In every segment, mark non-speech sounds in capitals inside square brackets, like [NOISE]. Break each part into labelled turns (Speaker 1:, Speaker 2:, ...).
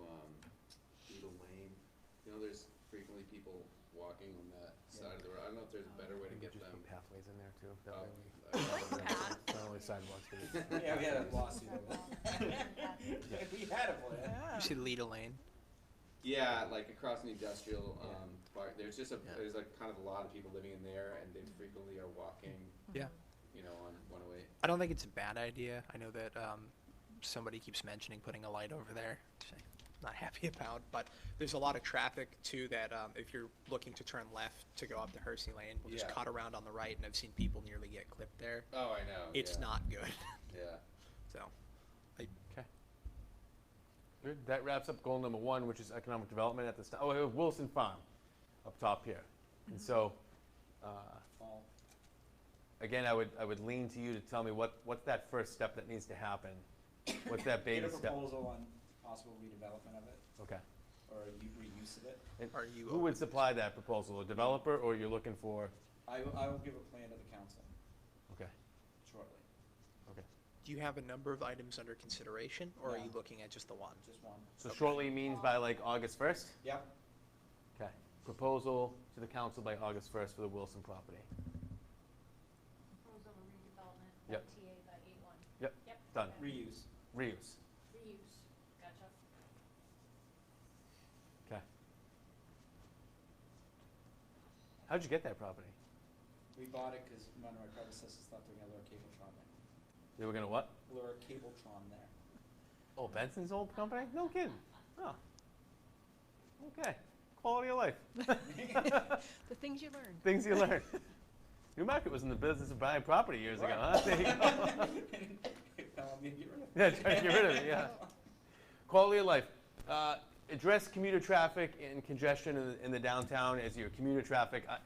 Speaker 1: um, You know, there's frequently people walking on that side of the road. I don't know if there's a better way to
Speaker 2: Maybe
Speaker 1: get
Speaker 2: just
Speaker 1: them. uh,
Speaker 2: put pathways in there too. That
Speaker 1: up.
Speaker 2: way we-
Speaker 1: [LAUGHS]
Speaker 3: Path.
Speaker 2: [LAUGHS] Not only sidewalks, but it's-
Speaker 4: Oh. [LAUGHS] Yeah, we had a lawsuit.
Speaker 2: Yeah.
Speaker 4: We had a plan.
Speaker 5: You should lead a lane.
Speaker 1: Yeah, like across an industrial, um, park, there's just a,
Speaker 5: Yeah.
Speaker 1: there's like kind of a lot of people living in there and they frequently are walking,
Speaker 5: Yeah.
Speaker 1: you know, on one oh eight.
Speaker 5: I don't think it's a bad idea. I know that um, somebody keeps mentioning putting a light over there. which I'm Not happy [LAUGHS] about, but there's a lot of traffic too that um, if you're looking to turn left to go up to Hersey Lane, will just
Speaker 1: Yeah.
Speaker 5: cut around on the right, and I've seen people nearly get clipped there.
Speaker 1: Oh, I know.
Speaker 5: It's
Speaker 1: yeah,
Speaker 5: not good. [LAUGHS]
Speaker 1: Yeah.
Speaker 5: so,
Speaker 2: Okay. Good. That wraps up goal number one, which is economic development at this time. Oh, we have Wilson Farm up top here. And so, uh, again, I would, I would lean to you to tell me what, what's that first step that needs to happen? What's that
Speaker 4: Get a
Speaker 2: baby step?
Speaker 4: proposal on possible redevelopment of it,
Speaker 2: Okay.
Speaker 4: or you reuse of it.
Speaker 2: And
Speaker 5: Are you
Speaker 2: Who
Speaker 5: open?
Speaker 2: would supply that proposal? A developer or you're looking for?
Speaker 4: I will, I will give a plan to the council
Speaker 2: Okay,
Speaker 4: shortly,
Speaker 2: okay.
Speaker 5: do you have a number of items under consideration, or are
Speaker 4: No.
Speaker 5: you looking at just the one?
Speaker 4: just one.
Speaker 2: So shortly means by like August 1st?
Speaker 4: Yep,
Speaker 2: Okay. Proposal to the council by August 1st for the Wilson property.
Speaker 3: Proposal redevelopment,
Speaker 2: Yep.
Speaker 3: TA by eight one.
Speaker 2: Yep,
Speaker 3: Yep.
Speaker 2: done.
Speaker 3: okay.
Speaker 4: reuse.
Speaker 2: Reuse.
Speaker 3: Reuse, gotcha.
Speaker 2: Okay. How'd you get that property?
Speaker 4: We bought it because one of my predecessors thought they were gonna lure Cabletron there.
Speaker 2: They were gonna what?
Speaker 4: Lure Cabletron there.
Speaker 2: Oh, Benson's old company? No kidding. Oh. Okay. Quality of life.
Speaker 6: [LAUGHS] The things you learn.
Speaker 2: Things you learn. Newmarket was in the business of buying property years ago, huh? There
Speaker 6: [LAUGHS]
Speaker 2: you go.
Speaker 4: [LAUGHS] Tell them to get rid of it.
Speaker 2: [LAUGHS] Yeah, try to get rid of it, yeah. Quality of life. Uh, address commuter traffic and congestion in the, in the downtown as your commuter traffic. I,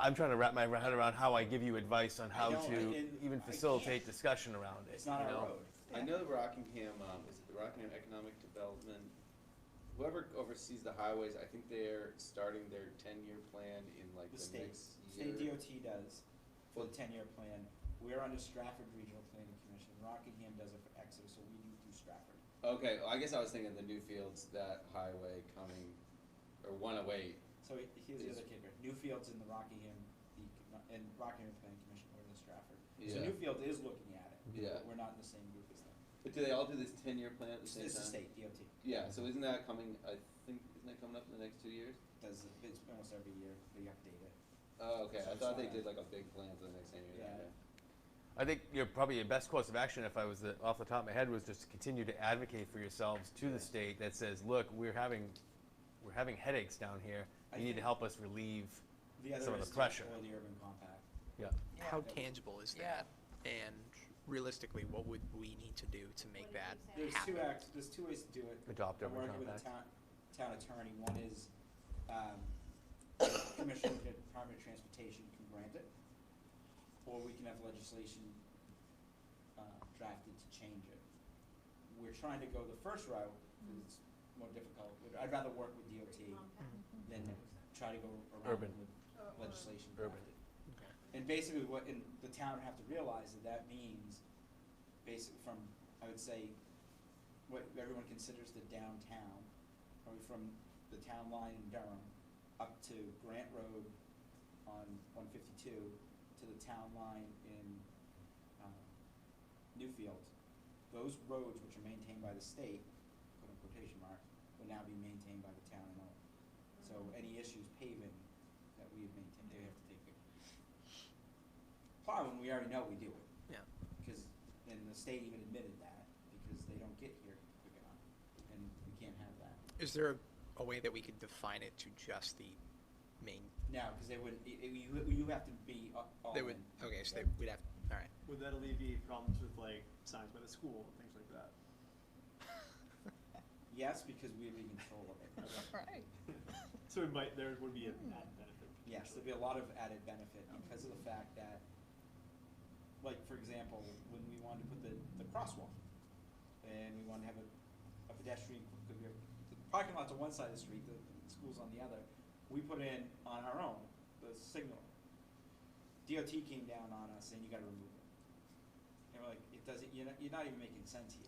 Speaker 2: I'm trying to wrap my head around how I give you advice on how
Speaker 4: know, I
Speaker 2: to
Speaker 4: didn't-
Speaker 2: even
Speaker 4: I
Speaker 2: facilitate
Speaker 4: can't.
Speaker 2: discussion around it.
Speaker 4: It's not
Speaker 2: you know?
Speaker 4: our road.
Speaker 1: I know the Rockingham, um, is it the Rockingham Economic Development? Whoever oversees the highways, I think they're starting their ten-year plan in like the
Speaker 4: The state,
Speaker 1: next
Speaker 4: state
Speaker 1: year.
Speaker 4: DOT does for the ten-year plan. We're under Stratford Regional Planning Commission. Rockingham does it for Exeter, so we do through Stratford.
Speaker 1: Okay, well, I guess I was thinking the Newfields, that highway coming, or one oh eight.
Speaker 4: So he- here's the
Speaker 1: Is-
Speaker 4: other kicker. Newfield's in the Rockingham, the, and Rockingham Planning Commission, we're in the Stratford. So
Speaker 1: Yeah.
Speaker 4: Newfield is looking at it.
Speaker 1: Yeah.
Speaker 4: But we're not in the same group as them.
Speaker 1: But do they all do this ten-year plan at the
Speaker 4: It's
Speaker 1: same time?
Speaker 4: it's the state, DOT.
Speaker 1: Yeah, so isn't that coming, I think, isn't that coming up in the next two years?
Speaker 4: Does, it- it's almost every year, they update it.
Speaker 1: Oh, okay,
Speaker 4: So
Speaker 1: I
Speaker 4: it's
Speaker 1: thought they
Speaker 4: not-
Speaker 1: did like a big plan for the next ten years.
Speaker 4: Yeah.
Speaker 2: I think your probably your best course of action, if I was the, off the top of my head, was just to continue to advocate for yourselves to the state that says, look, we're having, we're having headaches down here.
Speaker 4: I
Speaker 2: You need to
Speaker 4: think-
Speaker 2: help us relieve
Speaker 4: The other
Speaker 2: some of
Speaker 4: is
Speaker 2: the
Speaker 4: to
Speaker 2: pressure.
Speaker 4: explore the urban compact.
Speaker 2: Yeah.
Speaker 5: How
Speaker 4: Yeah.
Speaker 5: tangible is that? And realistically, what would we need to do to make
Speaker 3: What
Speaker 5: that
Speaker 3: did we
Speaker 4: There's
Speaker 3: say?
Speaker 5: happen?
Speaker 4: two acts, there's two ways to do it.
Speaker 2: Adopt
Speaker 4: I'm
Speaker 2: urban
Speaker 4: working with the town,
Speaker 2: compact.
Speaker 4: town attorney, one is, um, Commissioner of the Department of Transportation can grant it, or we can have legislation, uh, drafted to change it. We're trying to go the first route, because it's more difficult, But I'd rather work with DOT than try to go around
Speaker 2: Mm-hmm. Urban.
Speaker 4: with legislation
Speaker 2: Urban.
Speaker 4: drafted.
Speaker 5: Okay.
Speaker 4: And basically what, and the town would have to realize that that means, basically from, I would say, what everyone considers the downtown, probably from the town line in Durham up to Grant Road on one fifty-two to the town line in, um, Newfield. Those roads which are maintained by the state, put in quotation marks, will now be maintained by the town and all. So any issues paving that we have maintained, they have to take it. Plowing, we already know we do it
Speaker 5: Yeah.
Speaker 4: because, and the state even admitted that, because they don't get here quick enough, and we can't have that.
Speaker 5: Is there a, a way that we could define it to just the main?
Speaker 4: No, because they would, it- it- you, you have to be a- all
Speaker 5: They would.
Speaker 4: in.
Speaker 5: Okay, so they would have. All right.
Speaker 7: Would that alleviate problems with like signs by the school, things like that?
Speaker 4: Yes, because we would be in control of it.
Speaker 6: Right.
Speaker 7: [LAUGHS] So it might, there would be an added benefit.
Speaker 4: Yes, there'd be a lot of added benefit because of the fact that, like, for example, when we wanted to put the, the crosswalk, and we wanted to have a, a pedestrian, because we have, the parking lot's on one side of the street, the the school's on the other, we put in on our own, the signal. DOT came down on us saying, you gotta remove it. And we're like, it doesn't, you're not, you're not even making sense here.